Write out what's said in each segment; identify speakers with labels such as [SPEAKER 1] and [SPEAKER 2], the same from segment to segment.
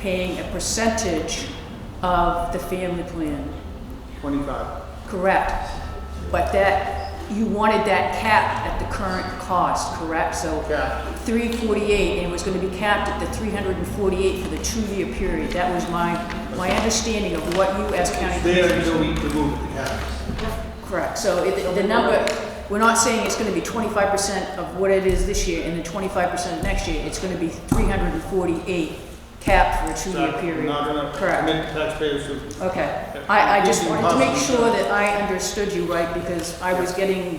[SPEAKER 1] paying a percentage of the family plan.
[SPEAKER 2] Twenty-five.
[SPEAKER 1] Correct. But that, you wanted that capped at the current cost, correct? So
[SPEAKER 2] Capped.
[SPEAKER 1] 348, and it was going to be capped at the 348 for the two-year period. That was my, my understanding of what you as county
[SPEAKER 2] It's there
[SPEAKER 1] commissioners.
[SPEAKER 2] until we remove the caps.
[SPEAKER 1] Correct. So it- the number, we're not saying it's going to be 25% of what it is this year and then 25% next year. It's going to be 348 capped for a two-year
[SPEAKER 2] So,
[SPEAKER 1] period.
[SPEAKER 2] Not gonna
[SPEAKER 1] Correct.
[SPEAKER 2] commit taxpayers to.
[SPEAKER 1] Okay,
[SPEAKER 2] Yeah.
[SPEAKER 1] I, I just
[SPEAKER 2] It's
[SPEAKER 1] wanted to make
[SPEAKER 2] impossible.
[SPEAKER 1] sure that I understood you right, because I was getting,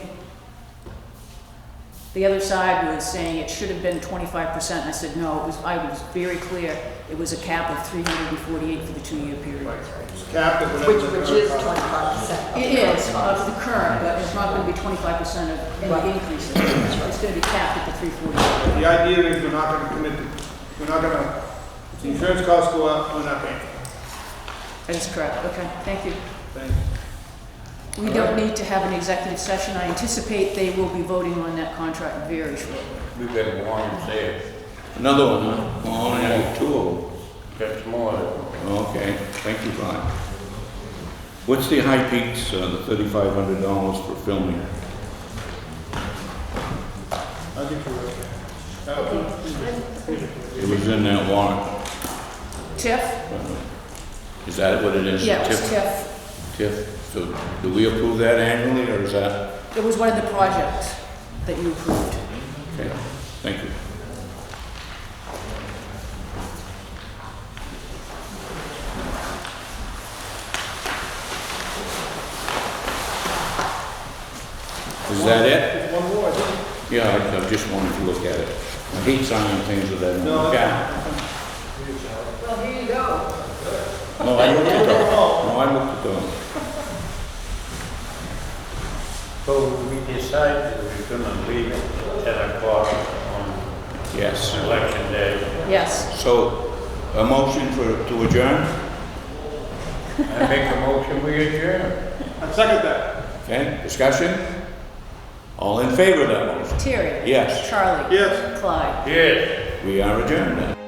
[SPEAKER 1] the other side was saying it should have been twenty-five percent, and I said, no, it was, I was very clear, it was a cap of three hundred and forty-eight for the two-year period.
[SPEAKER 2] It's capped at whatever.
[SPEAKER 3] Which,
[SPEAKER 2] the
[SPEAKER 3] which
[SPEAKER 2] current
[SPEAKER 3] is
[SPEAKER 2] cost.
[SPEAKER 3] twenty-five percent.
[SPEAKER 1] It is, of the current, but it's not gonna be twenty-five percent of
[SPEAKER 3] Right.
[SPEAKER 1] any increase, it's gonna be capped at the three forty-eight.
[SPEAKER 2] The idea is we're not gonna commit, to- we're not gonna, the insurance costs go up, we're not paying.
[SPEAKER 1] That is correct, okay, thank you.
[SPEAKER 2] Thank you.
[SPEAKER 1] We don't need to have an executive session, I anticipate they will be voting on that contract very shortly.
[SPEAKER 4] We've got one there. Another one, huh? Well, only have two of them.
[SPEAKER 5] That's more.
[SPEAKER 4] Okay, thank you, Brian. What's the high peaks, uh, the thirty-five hundred dollars for filming?
[SPEAKER 2] I think we're okay. That was-
[SPEAKER 4] It was in that warrant. uh,
[SPEAKER 1] Tiff?
[SPEAKER 4] Is that what it is?
[SPEAKER 1] Yeah, it was
[SPEAKER 4] TIF?
[SPEAKER 1] TIF.
[SPEAKER 4] TIF, so do we approve that annually, or is that?
[SPEAKER 1] It was one of the projects that you approved.
[SPEAKER 4] Okay, thank you. Is that it?
[SPEAKER 2] There's one more, I think.
[SPEAKER 4] Yeah, I- I just wanted to look at it. I hate signing things that I don't
[SPEAKER 2] No,
[SPEAKER 4] look
[SPEAKER 2] that's-
[SPEAKER 4] at.
[SPEAKER 3] Well, here you go.
[SPEAKER 4] No, I looked at them. No, I looked at them.
[SPEAKER 5] So we decided we're gonna leave it at ten o'clock on
[SPEAKER 4] Yes.
[SPEAKER 5] election day.
[SPEAKER 1] Yes.
[SPEAKER 4] So, a motion for, to adjourn?
[SPEAKER 5] I make a motion, we adjourn.
[SPEAKER 2] I second that.
[SPEAKER 4] Okay, discussion? All in favor of that motion?
[SPEAKER 1] Terry?
[SPEAKER 4] Yes.
[SPEAKER 1] Charlie?
[SPEAKER 2] Yes.
[SPEAKER 1] Clyde?
[SPEAKER 5] Yes.
[SPEAKER 4] We are adjourned then.